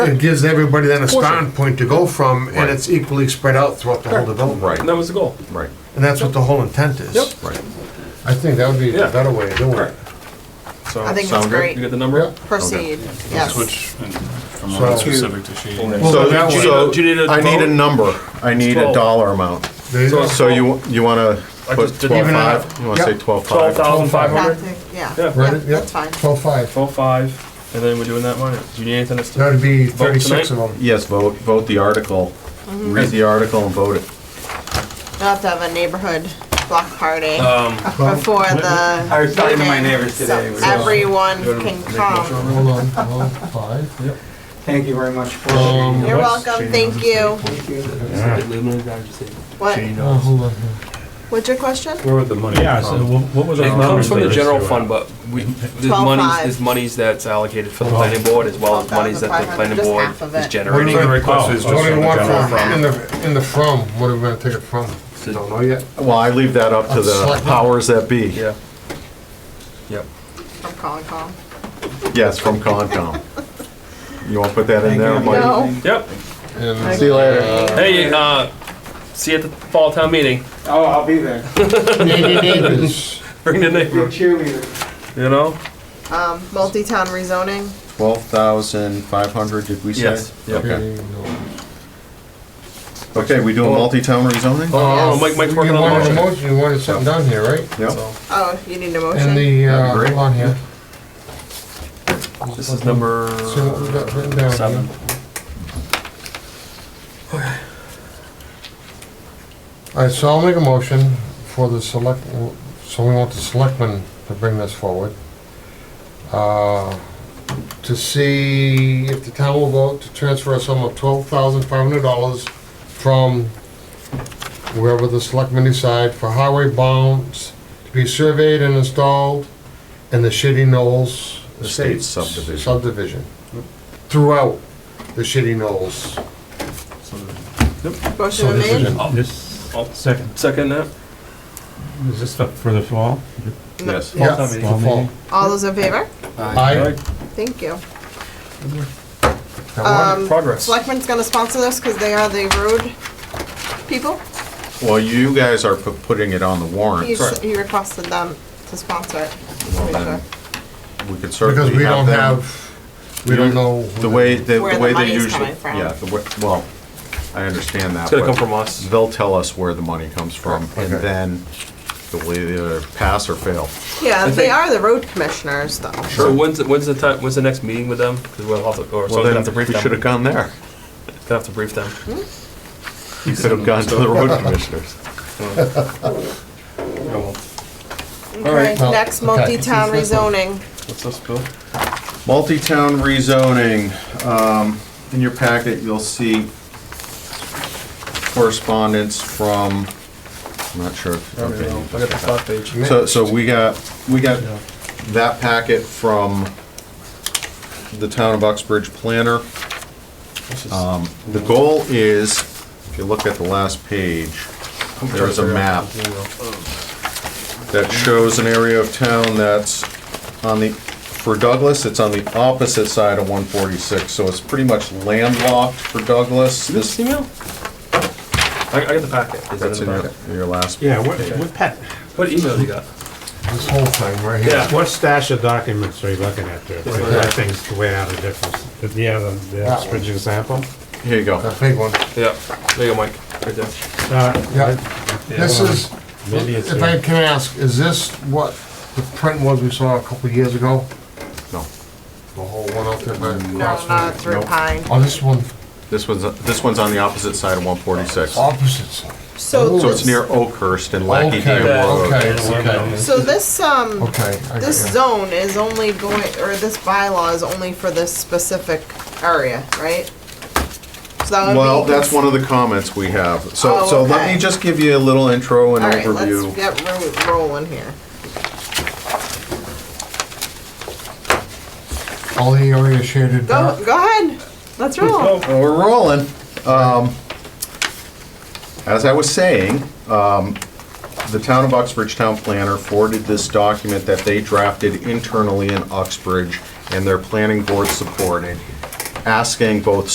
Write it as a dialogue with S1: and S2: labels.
S1: It gives everybody then a
S2: Portion.
S1: starting point to go from,
S3: Right.
S1: and it's equally spread out throughout the whole development.
S3: Right,
S2: And that was the goal.
S3: right,
S1: And that's what the whole intent is.
S2: Yep.
S3: right.
S1: I think that would be a
S2: Yeah.
S1: better way of doing it.
S2: Correct. So,
S4: I think that's
S3: Sound good?
S2: you got
S4: great.
S2: the number?
S4: Proceed, yes.
S5: Switch and from
S1: So-
S5: one specific to shade.
S1: Well,
S3: So,
S1: that one-
S3: so
S2: Do you need a
S3: I need a
S2: vote?
S3: number. I need a
S2: Twelve.
S3: dollar amount.
S1: There you
S2: So
S1: go.
S2: it's-
S3: So you, you wanna
S2: I
S3: put
S2: just didn't
S3: twelve
S1: even
S3: five?
S1: have-
S3: You wanna say
S1: Yep.
S3: twelve
S2: Twelve
S3: five?
S2: thousand five
S4: Not
S2: hundred?
S4: to- Yeah,
S2: Yeah.
S4: yeah,
S1: Right, yep,
S4: that's fine.
S1: twelve five.
S2: Twelve five, and then we're doing that one. Do you need anything else? to-
S1: That'd be
S2: Vote
S1: thirty-six of
S2: tonight?
S1: them.
S3: Yes, vote, vote the article. Read the article and vote it.
S4: We'll have to have a neighborhood block party
S1: Well,
S4: before the.
S6: I was talking to my
S4: meeting,
S6: neighbors
S4: so
S6: today.
S4: Everyone
S2: You wanna
S4: can
S2: make a motion
S4: come.
S2: on
S1: Hold on, hold on, five.
S6: Thank you very much for.
S1: Um,
S4: You're
S2: What's
S4: welcome,
S2: changing
S4: thank you.
S6: Thank you.
S4: What,
S1: Uh, hold on.
S4: what's your question?
S2: Where would the money
S5: Yeah,
S2: come
S5: so what what was
S2: It
S5: our?
S2: comes from the
S5: numbers?
S2: general fund, but we, there's
S4: Twelve
S2: monies,
S4: five.
S2: there's monies that's allocated for the planning board as well as monies that the
S4: 12,500,
S2: planning
S4: just
S2: board
S4: half of
S2: is
S4: it.
S1: What do
S2: generating.
S1: you
S5: request is just
S1: what do
S5: from
S1: you
S5: the
S1: want
S5: general
S1: from, in the, in the from, what are we gonna take it from? Don't know yet.
S3: Well, I leave that up to the
S1: Select-
S3: powers that be.
S2: Yeah. Yep.
S4: From calling call.
S3: Yes, from Concom. You wanna put that in there,
S6: Thank you.
S3: Mike?
S4: No.
S2: Yep.
S1: And
S3: See you later.
S2: Hey, uh, see you at the fall town meeting.
S6: Oh, I'll be there.
S1: neighbors,
S2: Bring the
S6: You're a
S2: neighbor,
S6: cheerleader.
S2: you know?
S4: Um, multi-town rezoning,
S3: Twelve thousand five hundred, did we say?
S2: Yes, yeah.
S3: Okay,
S1: okay, no.
S3: okay, we do a multi-town
S1: Uh,
S3: rezoning?
S2: Oh, Mike, Mike's working
S1: You
S2: on
S1: wanted
S2: the
S1: a
S2: motion.
S1: motion, you wanted something done here, right?
S3: Yep,
S2: So,
S4: oh, you need a
S1: And
S4: motion?
S1: the, uh,
S3: That'd be great.
S1: hold on here.
S2: This is number
S1: See what we got written down here.
S2: seven.
S1: All right, so I'll make a motion for the select, so we want the selectmen to bring this forward. uh, To see if the town will vote to transfer a sum of twelve thousand five hundred dollars from wherever the selectmen decide for highway bounds to be surveyed and installed in the Shitty Knolls Estates
S3: Estates subdivision.
S1: subdivision throughout the Shitty Knolls.
S4: Motion been made?
S5: This, second,
S2: Second that?
S5: is this the- for the fall?
S3: yes.
S1: Yeah,
S2: town meeting.
S1: for fall.
S4: All those in favor?
S1: Aye.
S4: Thank you.
S1: That one?
S4: Um,
S1: Progress.
S4: Selectmen's gonna sponsor this because they are the road people.
S3: Well, you guys are pu- putting it on the
S4: He,
S3: warrant.
S4: s- he requested them to sponsor it.
S3: Well, then, We could
S1: Because
S3: certainly
S1: we don't
S3: have them.
S1: have, we don't know.
S3: The way, the
S4: Where
S3: the
S4: the
S3: way they
S4: money's
S3: usually.
S4: coming from.
S3: Yeah, the way- well, I understand that.
S2: It's gonna
S3: but
S2: come from us.
S3: They'll tell us where the money comes from, and
S1: Okay.
S3: then it'll either pass or fail.
S4: Yeah, they
S2: think-
S4: are the road commissioners though.
S2: So when's, the- when's the time, when's the next meeting with them? Because we'll have to, or
S3: Well,
S2: someone's gonna have to
S3: then, we
S2: brief
S3: should have gone
S2: them.
S3: there.
S2: Gonna have to brief them.
S3: You could have gone to the road commissioners.
S4: Okay,
S1: well,
S4: next
S1: okay.
S4: multi-town rezoning.
S2: What's this, Bill?
S3: Multi-town rezoning, um, in your packet, you'll see correspondence from, I'm not sure. if-
S2: I don't
S3: okay,
S2: know.
S3: you
S2: I got the stock page.
S3: So, so we got, we got that packet from the town of Uxbridge planner. Um, The goal is, if you look at the last page, there's a map that shows an area of town that's on the, for Douglas, it's on the opposite side of 146, so it's pretty much landlocked for Douglas.
S2: This
S3: This,
S2: email? I, I got the packet. Is that
S3: that's
S2: in
S3: in
S2: the
S3: your,
S2: packet?
S3: your last.
S7: Yeah, what, what pa-
S2: What email you got?
S1: This whole thing right here.
S2: Yeah.
S7: what stash of documents are you looking at there?
S2: one.
S7: Because That thing's way out of difference. Do you have a- the
S1: That
S7: Uxbridge example?
S3: Here you go.
S1: That big one.
S2: Yeah, there you go, Mike, right there.
S7: Uh,
S1: Yeah. This is,
S7: Maybe it's,
S1: if I
S7: uh,
S1: can ask, is this what the print was we saw a couple of years ago?
S3: No,
S1: The whole one out there by the
S4: No,
S1: crossroad?
S4: not through
S3: Nope.
S4: Pine.
S1: Oh, this one,
S3: this one's, this one's on the opposite side of 146.
S1: opposites.
S4: So
S3: So oh, it's
S4: this,
S3: near Oakhurst and
S1: Okay,
S3: Lackey Dam Road.
S1: okay, okay.
S4: so this, um,
S1: Okay. I got
S4: this
S1: you.
S4: zone is only going, or this bylaw is only for this specific area, right? So that would be.
S3: Well, that's one of the comments we have. So,
S4: Oh,
S3: so let
S4: okay.
S3: me just give you a little intro and
S4: All right,
S3: overview.
S4: let's get ro- rolling here.
S1: All the area shaded
S4: Go,
S1: dark.
S4: go ahead. Let's roll.
S3: Well, We're rolling. Um, As I was saying, um, the town of Uxbridge Town Planner forwarded this document that they drafted internally in Uxbridge and their planning board supported. asking both